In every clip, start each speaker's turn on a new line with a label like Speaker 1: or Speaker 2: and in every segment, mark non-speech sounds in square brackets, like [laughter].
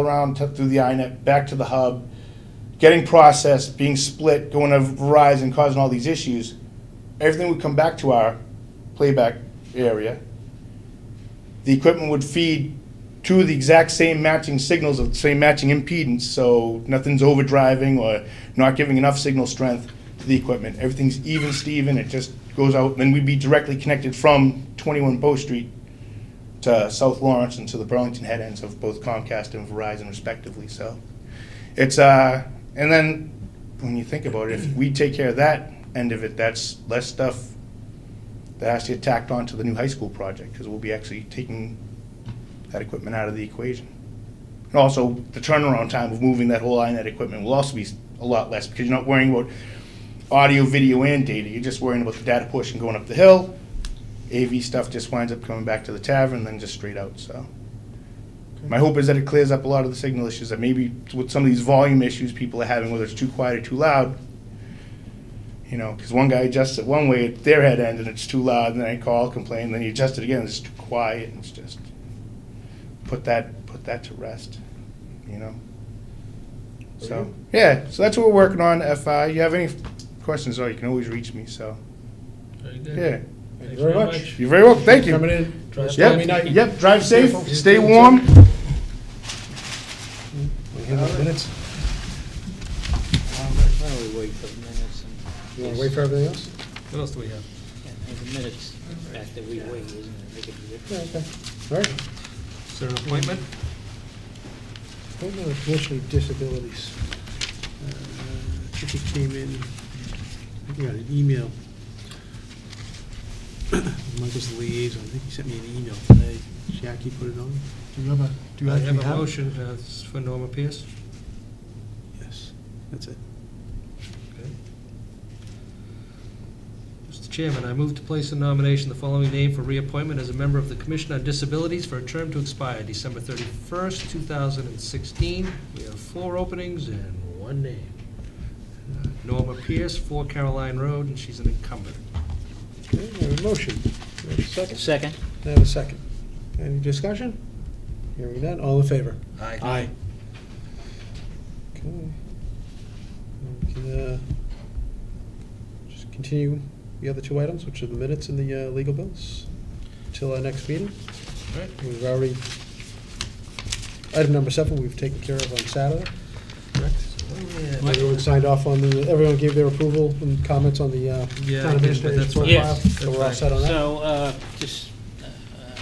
Speaker 1: around to- through the INET, back to the hub, getting processed, being split, going to Verizon, causing all these issues. Everything would come back to our playback area. The equipment would feed two of the exact same matching signals of the same matching impedance, so nothing's overdriving or not giving enough signal strength to the equipment. Everything's even, Steven, it just goes out, then we'd be directly connected from 21 Bow Street to South Lawrence and to the Burlington head ends of both Comcast and Verizon respectively, so. It's, uh, and then, when you think about it, if we take care of that end of it, that's less stuff that has to get tacked on to the new high school project, because we'll be actually taking that equipment out of the equation. And also, the turnaround time of moving that whole INET equipment will also be a lot less, because you're not worrying about audio, video, and data, you're just worrying about the data portion going up the hill, AV stuff just winds up coming back to the tavern, then just straight out, so. My hope is that it clears up a lot of the signal issues that maybe with some of these volume issues people are having, whether it's too quiet or too loud. You know, because one guy adjusts it one way at their head end and it's too loud, and then I call, complain, then you adjust it again, it's too quiet, and it's just, put that, put that to rest, you know? So, yeah, so that's what we're working on. If uh, you have any questions, though, you can always reach me, so,
Speaker 2: Very good.
Speaker 1: yeah.
Speaker 3: Thank
Speaker 2: Thanks
Speaker 3: you very
Speaker 2: very
Speaker 3: much.
Speaker 2: much.
Speaker 1: You're very welcome, thank you.
Speaker 3: Coming in.
Speaker 2: Drive
Speaker 3: Yep.
Speaker 2: safe.
Speaker 3: Night.
Speaker 1: Yep, drive safe,
Speaker 3: Careful.
Speaker 1: stay warm.
Speaker 3: We have those minutes.
Speaker 4: Well, Why don't we wait for the minutes and...
Speaker 3: You want to wait for everything else?
Speaker 2: What else do we have?
Speaker 4: And The minutes back that we wait, isn't it? They could be different.
Speaker 3: Yeah, okay. All right.
Speaker 2: Is there an appointment?
Speaker 3: Appointment of Commissioner of Disabilities. Uh, I think it came in, I think I got an email. [coughs] Michael's the liaison, I think he sent me an email today. Jackie put it on. Do you have a, do you
Speaker 2: I
Speaker 3: actually have?
Speaker 2: have a motion uh, for Norma Pierce.
Speaker 3: Yes, that's it.
Speaker 2: Okay. Mr. Chairman, I move to place in nomination the following name for reappointment as a member of the Commission on Disabilities for a term to expire December 31st, 2016. We have four openings and one name. Uh, Norma Pierce, 4 Caroline Road, and she's an incumbent.
Speaker 3: Okay, we have a motion. We have a second?
Speaker 4: Second?
Speaker 3: I have a second. Any discussion? Hearing none, all in favor? Aye. Okay. We can, uh, Just continue the other two items, which are the minutes and the uh, legal bills, till our next meeting.
Speaker 2: All right.
Speaker 3: We've already, item number seven, we've taken care of on Saturday. Everyone signed off on the, everyone gave their approval and comments on the uh,
Speaker 2: Yeah, I did,
Speaker 3: town
Speaker 2: but
Speaker 3: administrator's
Speaker 2: that's fine.
Speaker 3: profile.
Speaker 4: Yes.
Speaker 3: So we're all set on that?
Speaker 4: So, uh, just, uh, uh,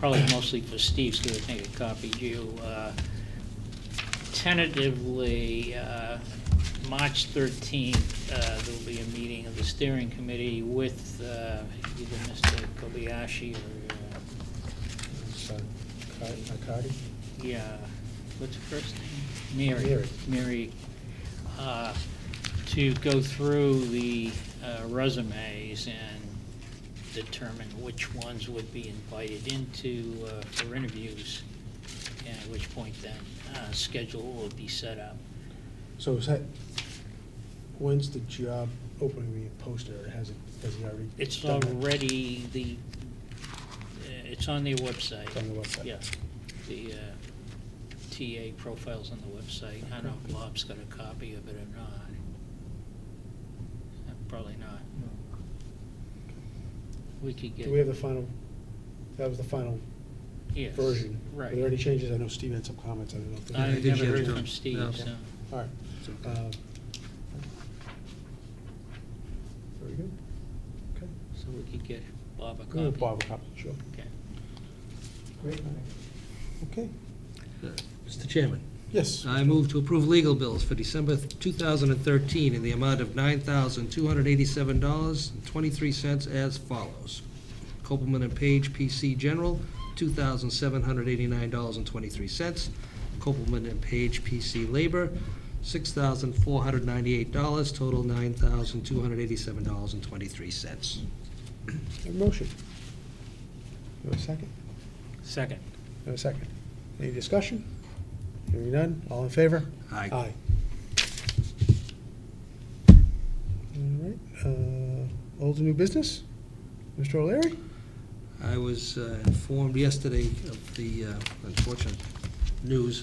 Speaker 4: probably mostly for Steve's, because I think I copied you. uh, Tentatively, uh, March 13th, uh, there will be a meeting of the steering committee with uh, either Mr. Kobayashi or, uh,
Speaker 3: So, Car- Accardi?
Speaker 4: yeah, uh, what's her first name?
Speaker 3: Mary.
Speaker 4: Mary. Mary, uh, to go through the uh, resumes and determine which ones would be invited into uh, for interviews, and at which point then uh, schedule will be set up.
Speaker 3: So is that, when's the job opening being posted, or has it, has it already?
Speaker 4: It's
Speaker 3: done that?
Speaker 4: already the, uh, it's on their website.
Speaker 3: It's on the website.
Speaker 4: Yeah, the uh, TA profile's on the website. I don't know if Bob's got a copy of it or not. Uh, Probably not. We could get.
Speaker 3: Do we have the final, that was the final
Speaker 4: Yes,
Speaker 3: version? Were there
Speaker 4: Right.
Speaker 3: any changes? I know Steve had some comments, I don't know if.
Speaker 2: I
Speaker 4: I
Speaker 3: there-
Speaker 2: did
Speaker 4: never
Speaker 2: get
Speaker 4: heard
Speaker 2: it.
Speaker 4: from Steve,
Speaker 2: No.
Speaker 4: so.
Speaker 3: All right. uh, Very good. Okay.
Speaker 4: So we could get Bob a
Speaker 3: We'll
Speaker 4: copy.
Speaker 3: give Bob a copy, sure.
Speaker 4: Okay.
Speaker 3: Okay,
Speaker 2: Mr. Chairman.
Speaker 3: yes.
Speaker 2: I move to approve legal bills for December 2013 in the amount of $9,287.23 as follows. Copeland and Page PC General, $2,789.23. Copeland and Page PC Labor, $6,498, total $9,287.23.
Speaker 3: Have a Motion. You have a second?
Speaker 4: Second.
Speaker 3: You have a second. Any discussion? Hearing none, all in favor?
Speaker 2: Aye.
Speaker 3: Aye. All right, uh, old and new business? Mr. O'Leary?
Speaker 2: I was uh, informed yesterday of the uh, unfortunate news